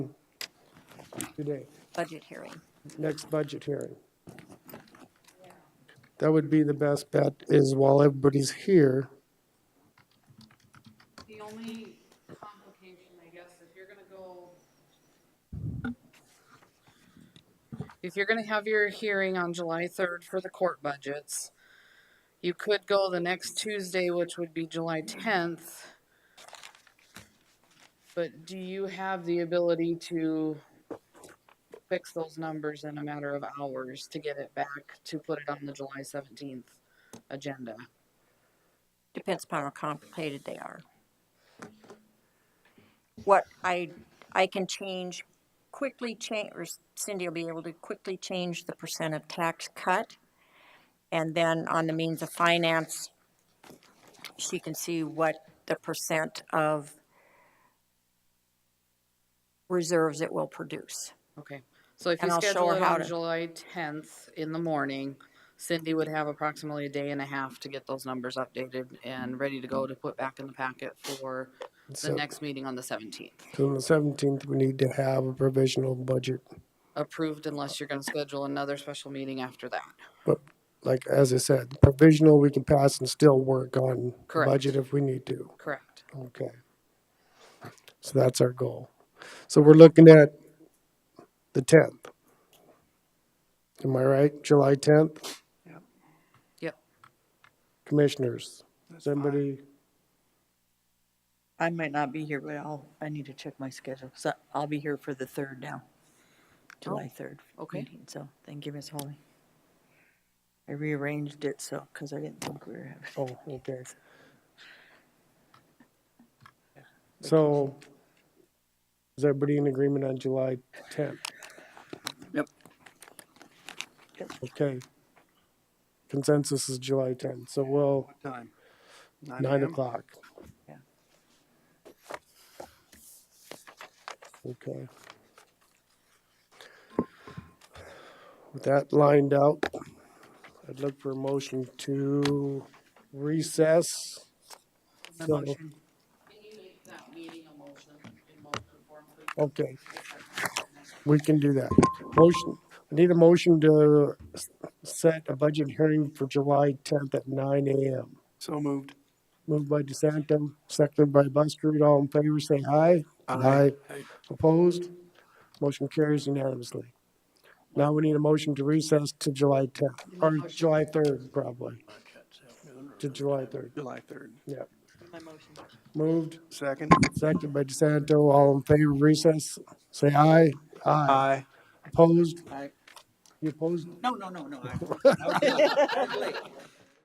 today, budget hearing. next budget hearing. That would be the best bet is while everybody's here, The only complication, I guess, if you're gonna go. If you're gonna have your hearing on July third for the court budgets, you could go the next Tuesday, which would be July tenth. But do you have the ability to fix those numbers in a matter of hours to get it back to put it on the July seventeenth agenda? Depends upon how complicated they are. What I, I can change, quickly change, or Cindy will be able to quickly change the percent of tax cut. And then on the means of finance, she can see what the percent of reserves it will produce. Okay, so if you And I'll show schedule her it how on to- July tenth in the morning, Cindy would have approximately a day and a half to get those numbers updated and ready to go to put back in the packet for the So- next meeting on the seventeenth. on the seventeenth, we need to have a provisional budget. Approved unless you're gonna schedule another special meeting after that. But like, as I said, provisional, we can pass and still work on Correct. budget if we need to. Correct. Okay. So that's our goal. So we're looking at the tenth. Am I right? July tenth, Yep. commissioners. Somebody, I might not be here, but I'll, I need to check my schedule, so I'll be here for the third now. July third. okay. meeting, So, thank you, Ms. Holly. I rearranged it so, because I didn't think we were having. oh, okay. So is everybody in agreement on July tenth? Yep. Yep. Okay. Consensus is July tenth, so we'll, Time. nine AM? o'clock. Yeah. Okay. With that lined out, I'd look for a motion to recess. The So- motion. Can you make that meeting a motion in motion form, please? Okay. We can do that. Motion, I need a motion to s- set a budget hearing for July tenth at nine AM. So moved. Moved by DeSanto, seconded by Buster. All in favor, say aye. Aye. Opposed? Motion carries unanimously. Now we need a motion to recess to July tenth, or July third, probably, to July third. July third. Yeah. My motion. Moved, Second. seconded by DeSanto. All in favor, of recess, say aye. Aye. Aye. Opposed? Aye. You opposed? No, no, no, no. I-